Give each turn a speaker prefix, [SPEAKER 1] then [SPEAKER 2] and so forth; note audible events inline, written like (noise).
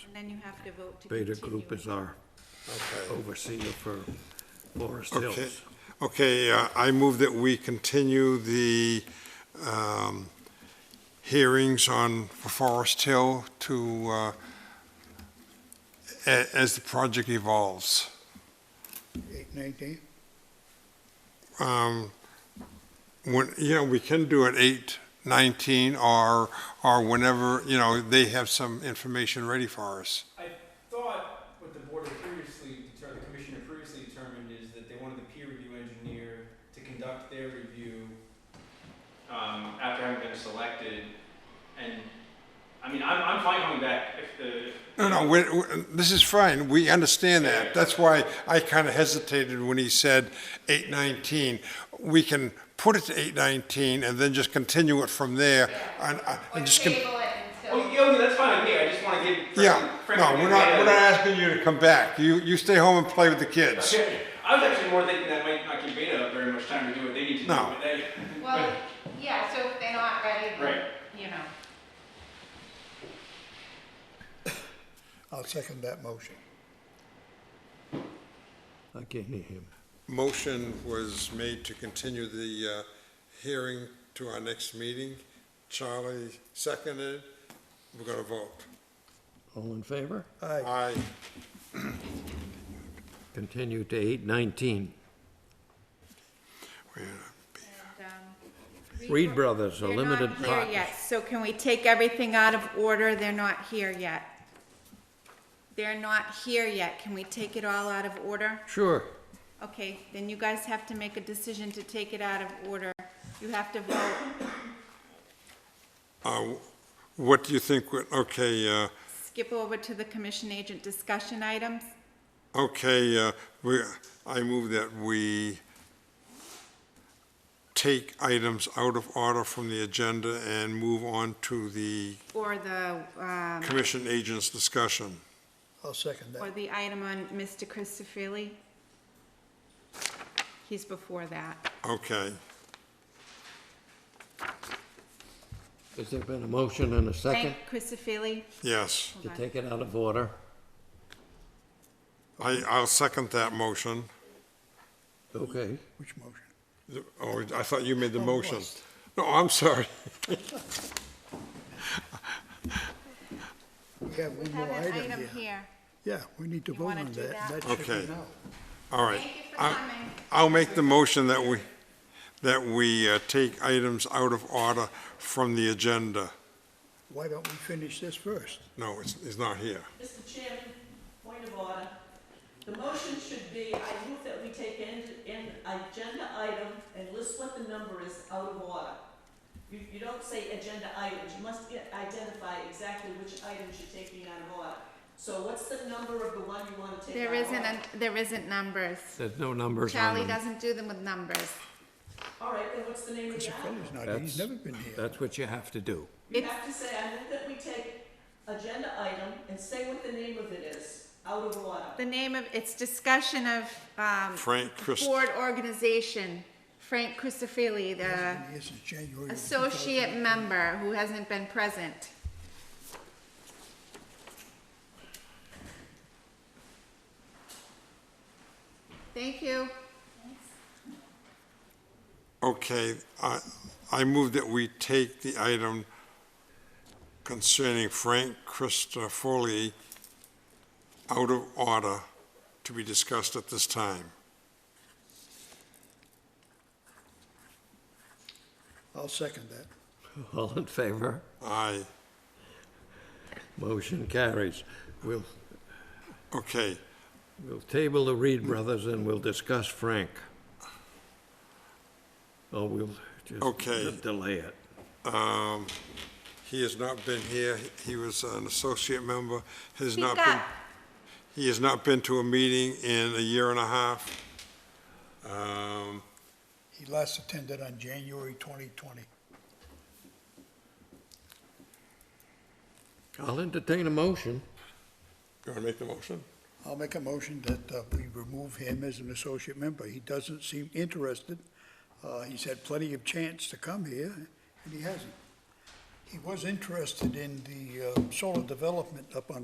[SPEAKER 1] then you have to vote to continue.
[SPEAKER 2] Beta Group
[SPEAKER 1] it.
[SPEAKER 2] is our
[SPEAKER 3] Okay.
[SPEAKER 2] overseer for Forest
[SPEAKER 3] Okay,
[SPEAKER 2] Hills.
[SPEAKER 3] okay, uh, I move that we continue the um, hearings on Forest Hill to, uh, a- as the project evolves.
[SPEAKER 4] Eight nineteen?
[SPEAKER 3] Um, When, you know, we can do it eight nineteen or, or whenever, you know, they have some information ready for us.
[SPEAKER 5] thought what the board had previously, deter- the commissioner previously determined is that they wanted the peer review engineer to conduct their review um, after having been selected, and, I mean, I'm, I'm fine coming back if the.
[SPEAKER 3] No, no, we, we- this is fine, we understand that. That's why I kind of hesitated when he said eight nineteen. We can put it to eight nineteen and then just continue it from there and, uh, and just. com-
[SPEAKER 6] table it until.
[SPEAKER 5] Oh, yeah, that's fine with me, I just wanna give. Frank-
[SPEAKER 3] Yeah,
[SPEAKER 5] Frank
[SPEAKER 3] no,
[SPEAKER 5] a
[SPEAKER 3] we're
[SPEAKER 5] good
[SPEAKER 3] not,
[SPEAKER 5] idea.
[SPEAKER 3] we're not asking you to come back. You, you stay home and play with the kids.
[SPEAKER 5] Okay. I was actually more thinking that might not give Beta very much time to do what they need to do,
[SPEAKER 3] No.
[SPEAKER 5] but they,
[SPEAKER 6] Well, yeah, so if they're not ready,
[SPEAKER 5] Right.
[SPEAKER 6] then, you know.
[SPEAKER 4] I'll second that motion.
[SPEAKER 2] I can't hear him.
[SPEAKER 3] Motion was made to continue the uh, hearing to our next meeting. Charlie seconded. We're going to vote.
[SPEAKER 2] All in favor?
[SPEAKER 4] Aye.
[SPEAKER 3] Aye.
[SPEAKER 2] Continue to eight nineteen.
[SPEAKER 3] Wait a minute.
[SPEAKER 1] And, um,
[SPEAKER 2] Reed Brothers, a
[SPEAKER 1] They're
[SPEAKER 2] limited
[SPEAKER 1] not here
[SPEAKER 2] partnership.
[SPEAKER 1] yet, so can we take everything out of order? They're not here yet. They're not here yet. Can we take it all out of order?
[SPEAKER 2] Sure.
[SPEAKER 1] Okay, then you guys have to make a decision to take it out of order. You have to vote.
[SPEAKER 3] Uh, What do you think, would- okay, uh,
[SPEAKER 1] Skip over to the commission agent discussion items.
[SPEAKER 3] okay, uh, we, I move that we take items out of order from the agenda and move on to the
[SPEAKER 1] Or the, um,
[SPEAKER 3] commission agents discussion.
[SPEAKER 4] I'll second
[SPEAKER 1] or
[SPEAKER 4] that.
[SPEAKER 1] the item on Mr. Christopherly. He's before that.
[SPEAKER 3] Okay.
[SPEAKER 2] Has there been a motion and a second
[SPEAKER 1] Frank Christopherly,
[SPEAKER 3] Yes.
[SPEAKER 2] to take it out of order?
[SPEAKER 3] I, I'll second that motion.
[SPEAKER 2] Okay.
[SPEAKER 4] Which motion?
[SPEAKER 3] Oh, I thought you made the
[SPEAKER 4] Oh,
[SPEAKER 3] motion.
[SPEAKER 4] yes.
[SPEAKER 3] No, I'm sorry. (laughs)
[SPEAKER 4] We have one
[SPEAKER 1] have
[SPEAKER 4] more
[SPEAKER 1] an
[SPEAKER 4] item
[SPEAKER 1] item
[SPEAKER 4] here.
[SPEAKER 1] here.
[SPEAKER 4] Yeah, we need to
[SPEAKER 1] You
[SPEAKER 4] vote
[SPEAKER 1] wanna
[SPEAKER 4] on
[SPEAKER 1] do
[SPEAKER 4] that.
[SPEAKER 1] that?
[SPEAKER 4] That should be
[SPEAKER 3] Okay.
[SPEAKER 4] now.
[SPEAKER 3] All right.
[SPEAKER 1] Thank you for
[SPEAKER 3] I-
[SPEAKER 1] coming.
[SPEAKER 3] I'll make the motion that we, that we uh, take items out of order from the agenda.
[SPEAKER 4] Why don't we finish this first?
[SPEAKER 3] No, it's, it's not here.
[SPEAKER 7] Mr. Chairman, point of order. The motion should be, I move that we take an, an agenda item and list what the number is out of order. You, you don't say agenda items, you must get- identify exactly which items you're taking out of order. So what's the number of the one you wanna take out of
[SPEAKER 1] There
[SPEAKER 7] order?
[SPEAKER 1] isn't, an- there isn't numbers.
[SPEAKER 2] There's no numbers
[SPEAKER 1] Charlie
[SPEAKER 2] on them.
[SPEAKER 1] doesn't do them with numbers.
[SPEAKER 7] All right, then what's the name of the item?
[SPEAKER 4] Christopherly's not here. He's
[SPEAKER 2] That's-
[SPEAKER 4] never been here.
[SPEAKER 2] That's what you have to do.
[SPEAKER 7] You
[SPEAKER 1] It's-
[SPEAKER 7] have to say, I move that we take agenda item and say what the name of it is, out of order.
[SPEAKER 1] The name of, it's discussion of, um,
[SPEAKER 3] Frank Christ,
[SPEAKER 1] board organization. Frank Christopherly, the
[SPEAKER 4] This is January. of
[SPEAKER 1] associate member who hasn't been present. Thank you.
[SPEAKER 3] okay, I, I move that we take the item concerning Frank Christofoli out of order to be discussed at this time.
[SPEAKER 4] I'll second that.
[SPEAKER 2] All in favor?
[SPEAKER 3] Aye.
[SPEAKER 2] Motion carries. We'll,
[SPEAKER 3] Okay,
[SPEAKER 2] we'll table the Reed Brothers and we'll discuss Frank. Or we'll
[SPEAKER 3] Okay.
[SPEAKER 2] just delay it.
[SPEAKER 3] um, he has not been here, he was an associate member, has
[SPEAKER 1] Speak
[SPEAKER 3] not been,
[SPEAKER 1] up.
[SPEAKER 3] he has not been to a meeting in a year and a half. Um,
[SPEAKER 4] He last attended on January twenty twenty.
[SPEAKER 2] I'll entertain a motion.
[SPEAKER 3] you wanna make the motion?
[SPEAKER 4] I'll make a motion that uh, we remove him as an associate member. He doesn't seem interested. Uh, He's had plenty of chance to come here, and he hasn't. He was interested in the uh, solar development up on